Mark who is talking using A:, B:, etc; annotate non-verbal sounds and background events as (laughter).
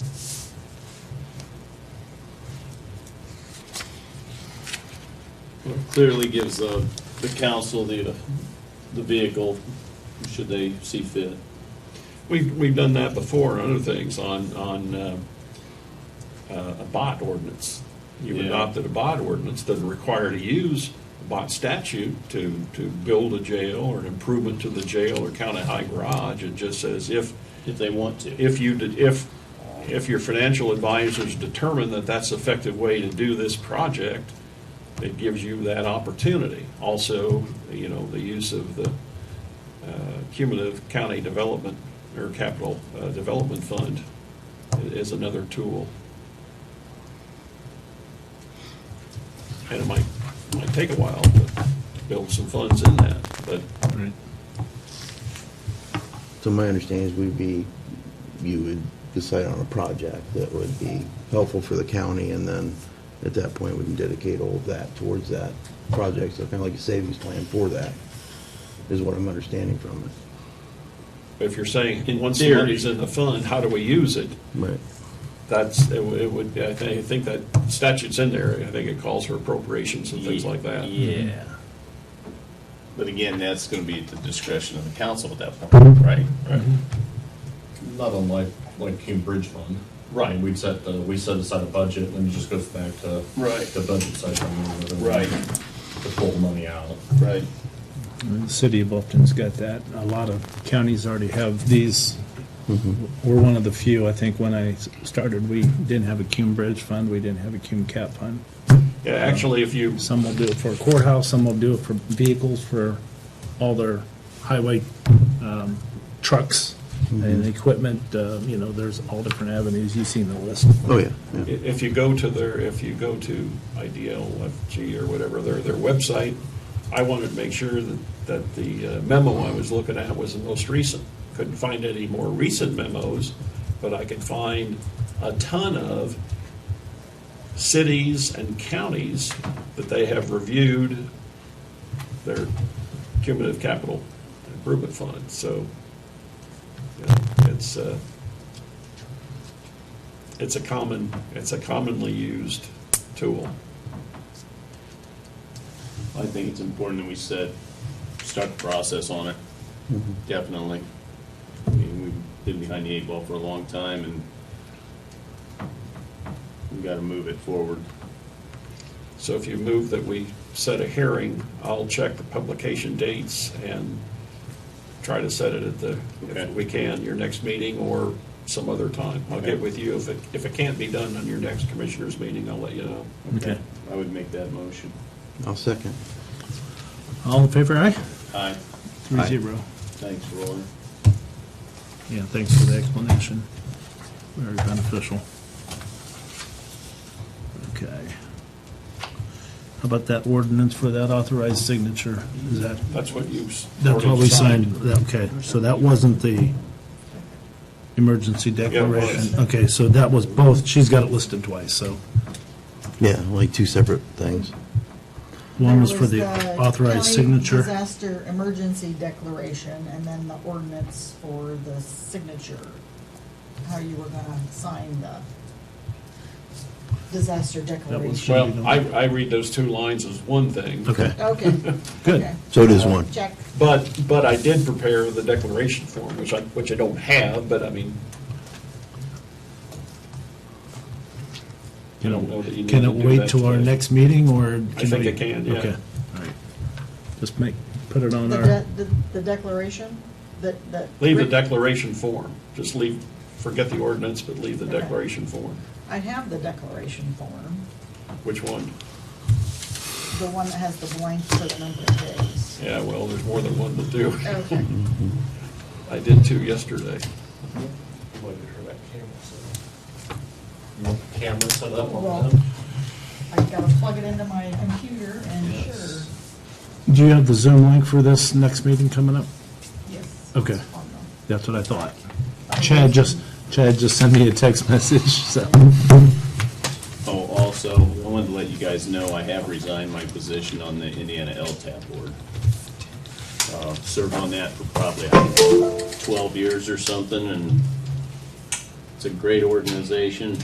A: Clearly gives the, the council the, uh, the vehicle, should they see fit. We've, we've done that before on other things, on, on, uh, uh, a bot ordinance. You
B: Yeah.
A: adopted a bot ordinance that required to use a bot statute to, to build a jail or an improvement to the jail or county high garage. It just says if,
B: if they want to.
A: if you, did- if, if your financial advisors determine that that's the effective way to do this project, it gives you that opportunity. Also, you know, the use of the uh, cumulative county development or capital uh, development fund i- is another tool. And it might, might take a while to build some funds in that, but
C: So my understanding is we'd be, you would decide on a project that would be helpful for the county, and then at that point, we can dedicate all of that towards that project, so kind of like a savings plan for that, is what I'm understanding from it.
A: if you're saying,
B: In
A: once the
B: theory.
A: money's in the fund, how do we use it?
C: Right.
A: That's, it would- it would, I thi- I think that statute's in there, I think it calls for appropriations and things like that.
B: Yeah. But again, that's gonna be at the discretion of the council at that point, right?
A: Right.
D: Not unlike, like Hume Bridge Fund.
A: Right.
D: We'd set, the- we set aside a budget, and then it just goes back to.
B: Right.
D: The budget session. and then
B: Right.
D: To pull the money out.
B: Right.
E: The city of Bluffton's got that. A lot of counties already have these. We're one of the few, I think, when I s- started, we didn't have a Cume Bridge Fund, we didn't have a Cume Cap Fund.
A: Yeah, actually, if you,
E: Some will do it for courthouse, some will do it for vehicles, for all their highway um, trucks and equipment, uh, you know, there's all different avenues. You've seen the list.
C: Oh, yeah, yeah.
A: if you go to their, if you go to IDLFG or whatever, their, their website, I wanted to make sure that, that the uh, memo I was looking at was the most recent. Couldn't find any more recent memos, but I could find a ton of cities and counties that they have reviewed their cumulative capital improvement fund, so, you know, it's, uh, it's a common, it's a commonly used tool.
B: I think it's important that we set, start the process on it, definitely. I mean, we've been behind the eight ball for a long time, and we gotta move it forward.
A: So if you move that we set a hearing, I'll check the publication dates and try to set it at the,
B: Okay.
A: if we can, your next meeting or some other time. I'll get with you. If it, if it can't be done on your next commissioners meeting, I'll let you know.
E: Okay.
B: I would make that motion.
C: I'll second.
E: All in favor, aye?
B: Aye.
E: Three
C: Aye.
E: zero.
B: Thanks, Roy.
E: Yeah, thanks for the explanation. Very beneficial. Okay. How about that ordinance for that authorized signature? Is that,
A: That's what you. s-
E: that's what we
A: already
E: signed, that- okay, so that wasn't the emergency declaration? Okay, so that was both, she's got it listed twice, so
C: Yeah, like two separate things.
E: one was
F: There
E: for the authorized
F: county
E: signature.
F: Disaster emergency declaration, and then the ordinance for the signature, how you were gonna sign the disaster declaration.
A: Well, I, I read those two lines as one thing.
E: Okay,
F: Okay.
E: (laughs) good.
F: okay.
C: So it is one.
F: Check.
A: But, but I did prepare the declaration form, which I, which I don't have, but I mean, I
E: Can
A: don't know that you
E: it,
A: need
E: can
A: to
E: it
A: do that
E: wait till our
A: today.
E: next meeting, or?
A: I think
E: we-
A: it can, yeah.
E: Okay, all right. Just make, put it on
F: The,
E: our.
F: de- the, the declaration that, that.
A: Leave the
F: Rick-
A: declaration form. Just leave, forget the ordinance, but leave the declaration form.
F: I have the declaration form,
A: Which one?
F: the one that has the blank for the number of days.
A: Yeah, well, there's more than one to do.
E: (laughs)
F: Okay.
A: (laughs) I did two yesterday.
D: Waited for that camera set up. Camera set up on
F: Well,
D: them.
F: I gotta plug it into my computer and sure.
E: Do you have the Zoom link for this next meeting coming up?
F: Yes.
E: Okay.
F: it's on the-
E: That's what I thought. Chad just, Chad just sent me a text (laughs) message, so.
B: Oh, also, I wanted to let you guys know I have resigned my position on the Indiana LTAP board. Uh, Served on that for probably I don't know, 12 years or something, and it's a great organization.